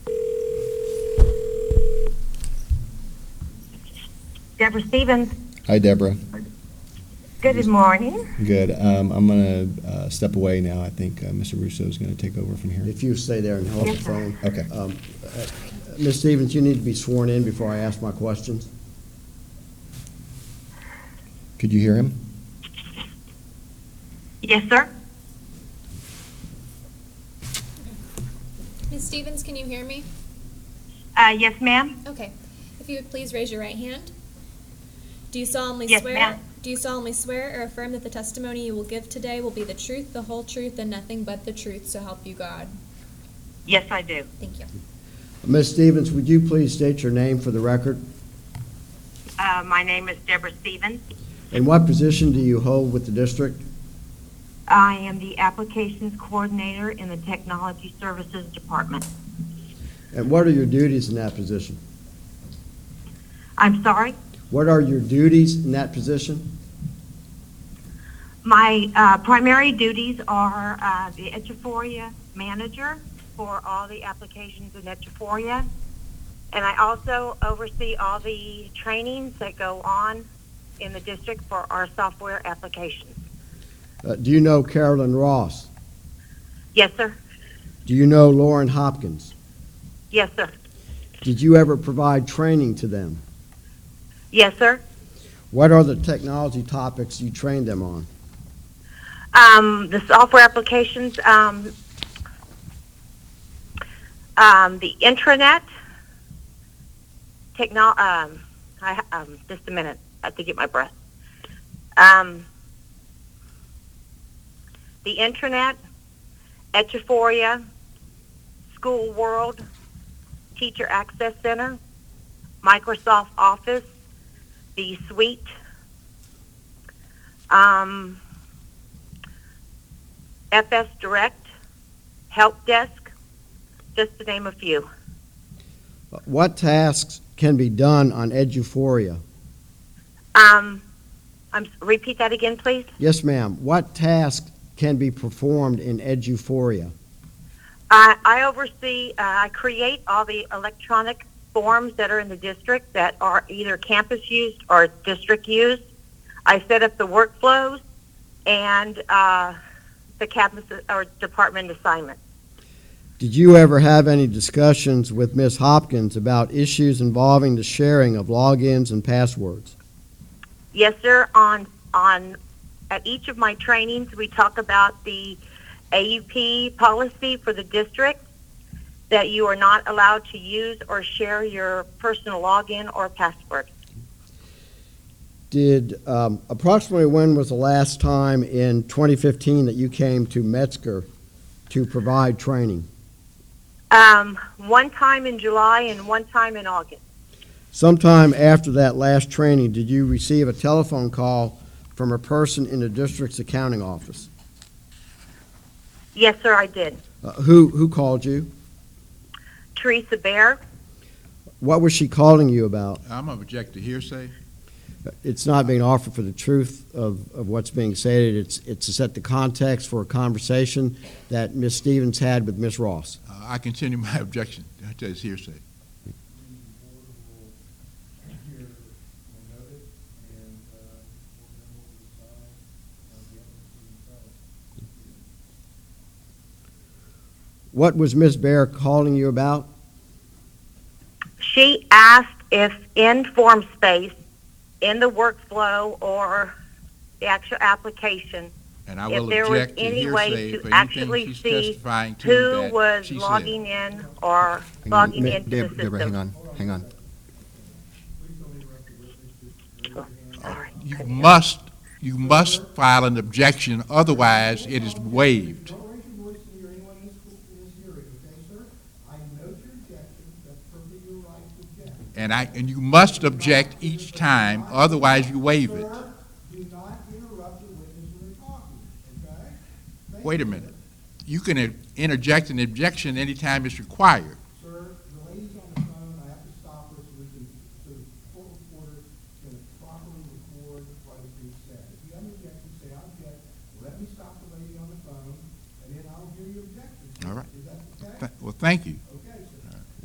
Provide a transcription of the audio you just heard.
Deborah Stevens. Hi, Deborah. Good morning. Good. Um, I'm going to uh, step away now. I think uh, Mr. Russo is going to take over from here. If you stay there and hold the Yes, sir. phone. Okay. Um, uh, Ms. Stevens, you need to be sworn in before I ask my questions. Could you hear him? Yes, sir. Ms. Stevens, can you hear me? Uh, yes, ma'am. Okay. If you would please raise your right hand. Do you solemnly Yes, swear? ma'am. Do you solemnly swear or affirm that the testimony you will give today will be the truth, the whole truth, and nothing but the truth, so help you God? Yes, I do. Thank you. Ms. Stevens, would you please state your name for the record? Uh, my name is Deborah Stevens. And what position do you hold with the district? I am the Applications Coordinator in the Technology Services Department. And what are your duties in that position? I'm sorry, What are your duties in that position? my uh, primary duties are uh, the Etchaforia Manager for all the applications in Etchaforia, and I also oversee all the trainings that go on in the district for our software applications. Uh, Do you know Carolyn Ross? Yes, sir. Do you know Lauren Hopkins? Yes, sir. Did you ever provide training to them? Yes, sir. What are the technology topics you trained them on? Um, the software applications, um, um, the intranet, techno, um, I, um, just a minute, I have to get my breath. Um, the intranet, Etchaforia, School World, Teacher Access Center, Microsoft Office, the suite, um, FS Direct, Help Desk, just to name a few. Uh, What tasks can be done on Eduphoria? Um, I'm, repeat that again, please. Yes, ma'am. What tasks can be performed in Eduphoria? I, I oversee, uh, I create all the electronic forms that are in the district that are either campus used or district used. I set up the workflows and uh, the campus uh, or department assignments. Did you ever have any discussions with Ms. Hopkins about issues involving the sharing of logins and passwords? Yes, sir. On on at each of my trainings, we talk about the AUP policy for the district that you are not allowed to use or share your personal login or password. Did, um, approximately when was the last time in 2015 that you came to Metzger to provide training? Um, one time in July and one time in August. Sometime after that last training, did you receive a telephone call from a person in the district's accounting office? Yes, sir, I did. Uh, Who, who called you? Teresa Bear. What was she calling you about? Uh, I'm gonna object to hearsay. It's not being offered for the truth of, of what's being stated. It's, it's to set the context for a conversation that Ms. Stevens had with Ms. Ross. Uh, I continue my objection to this hearsay. What was Ms. Bear calling you about? She asked if in form space, in the workflow or the actual application, And I If will there was object to any way hearsay to for actually anything she's see testifying to who that was she said. logging in or Hang on. logging Ma- into the Deb- system. Deborah, hang on, hang on. Sorry. You must, you must file an objection, otherwise it is waived. Don't raise your voice to hear anyone in this, in this hearing, okay, sir? I note your objection, that's perfectly your right to object. And I, and you must object each time, otherwise you waive it. Sir, do not interrupt the witness when they're talking, okay? Thank Wait a you, minute. You can uh, interject an objection anytime it's required. Sir, the lady's on the phone, I have to stop her so we can, so the full recorder can properly record what is being said. If you have an objection, say, I object, let me stop the lady on the phone, and then I'll hear your objection. All right. Is that okay? Th- Well, thank you.